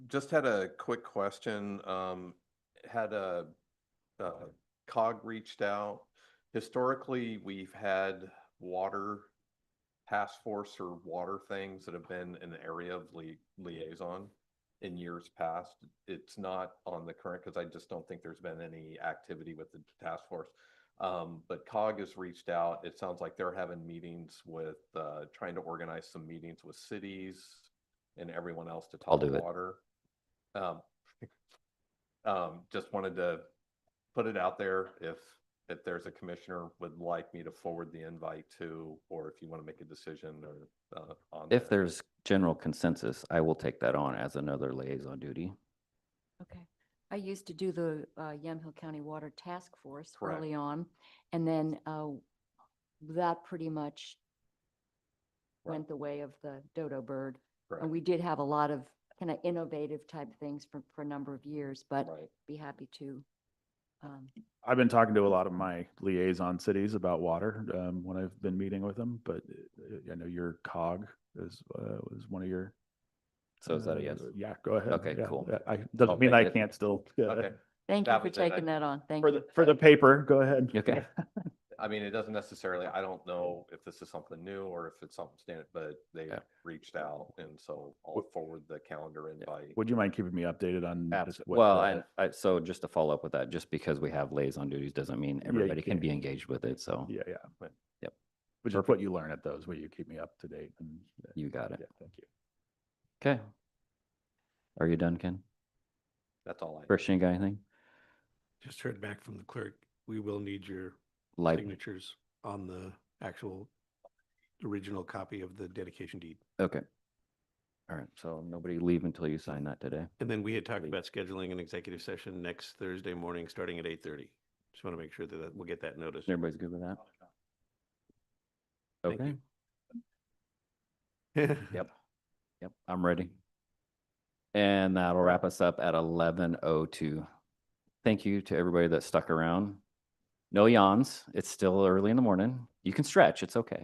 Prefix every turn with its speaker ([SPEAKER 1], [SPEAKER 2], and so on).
[SPEAKER 1] just had a quick question. Um, had a, uh, cog reached out. Historically, we've had water task force or water things that have been an area of li- liaison in years past. It's not on the current, because I just don't think there's been any activity with the task force. Um, but COG has reached out. It sounds like they're having meetings with, uh, trying to organize some meetings with cities and everyone else to
[SPEAKER 2] I'll
[SPEAKER 1] talk
[SPEAKER 2] do it.
[SPEAKER 1] water. Um, um, just wanted to put it out there if, if there's a commissioner would like me to forward the invite to, or if you want to make a decision or, uh, on.
[SPEAKER 2] If
[SPEAKER 1] there.
[SPEAKER 2] there's general consensus, I will take that on as another liaison duty.
[SPEAKER 3] Okay. I used to do the uh, Yamhill County Water Task Force
[SPEAKER 1] Correct.
[SPEAKER 3] early on. And then uh, that pretty much
[SPEAKER 1] Right.
[SPEAKER 3] went the way of the dodo bird.
[SPEAKER 1] Correct.
[SPEAKER 3] And we did have a lot of kind of innovative type things for, for a number of years, but
[SPEAKER 1] Right.
[SPEAKER 3] be happy to. um,
[SPEAKER 4] I've been talking to a lot of my liaison cities about water um, when I've been meeting with them, but uh, I know your cog is uh, was one of your.
[SPEAKER 2] So is that a
[SPEAKER 4] uh,
[SPEAKER 2] yes?
[SPEAKER 4] Yeah, go ahead.
[SPEAKER 2] Okay,
[SPEAKER 4] Yeah,
[SPEAKER 2] cool.
[SPEAKER 4] yeah, I
[SPEAKER 2] I'll
[SPEAKER 4] doesn't mean
[SPEAKER 2] take
[SPEAKER 4] I
[SPEAKER 2] it.
[SPEAKER 4] can't still uh,
[SPEAKER 1] Okay.
[SPEAKER 3] Thank you
[SPEAKER 1] That
[SPEAKER 3] for
[SPEAKER 1] was it. I-
[SPEAKER 3] taking that on. Thank
[SPEAKER 4] for
[SPEAKER 3] you.
[SPEAKER 4] the for the paper. Go ahead.
[SPEAKER 2] Okay.
[SPEAKER 1] I mean, it doesn't necessarily, I don't know if this is something new or if it's something standard, but they
[SPEAKER 2] Yeah.
[SPEAKER 1] reached out and so I'll
[SPEAKER 4] W-
[SPEAKER 1] forward the calendar invite.
[SPEAKER 4] Would you mind keeping me updated on?
[SPEAKER 1] Abs-
[SPEAKER 4] just what
[SPEAKER 2] Well,
[SPEAKER 4] the-
[SPEAKER 2] I, I, so just to follow up with that, just because we have liaison duties doesn't mean
[SPEAKER 4] Yeah, you
[SPEAKER 2] everybody can
[SPEAKER 4] can't.
[SPEAKER 2] be engaged with it. So
[SPEAKER 4] Yeah, yeah.
[SPEAKER 1] Right.
[SPEAKER 2] Yep.
[SPEAKER 4] Which is what you learn at those. Will you keep me up to date? And uh,
[SPEAKER 2] you got
[SPEAKER 4] yeah,
[SPEAKER 2] it.
[SPEAKER 4] thank you.
[SPEAKER 2] Okay. Are you done, Ken?
[SPEAKER 1] That's all I,
[SPEAKER 2] Christian, you got anything?
[SPEAKER 5] Just heard back from the clerk. We will need your
[SPEAKER 2] Like,
[SPEAKER 5] signatures on the actual original copy of the dedication deed.
[SPEAKER 2] okay. All right. So nobody leave until you sign that today.
[SPEAKER 5] And then we had talked
[SPEAKER 2] Great.
[SPEAKER 5] about scheduling an executive session next Thursday morning, starting at eight thirty. Just want to make sure that that- we'll get that notice.
[SPEAKER 2] Everybody's good with that?
[SPEAKER 5] Thank
[SPEAKER 2] Okay. Yep. Yep. I'm ready. And that'll wrap us up at eleven oh two. Thank you to everybody that stuck around. No yawns. It's still early in the morning. You can stretch. It's okay.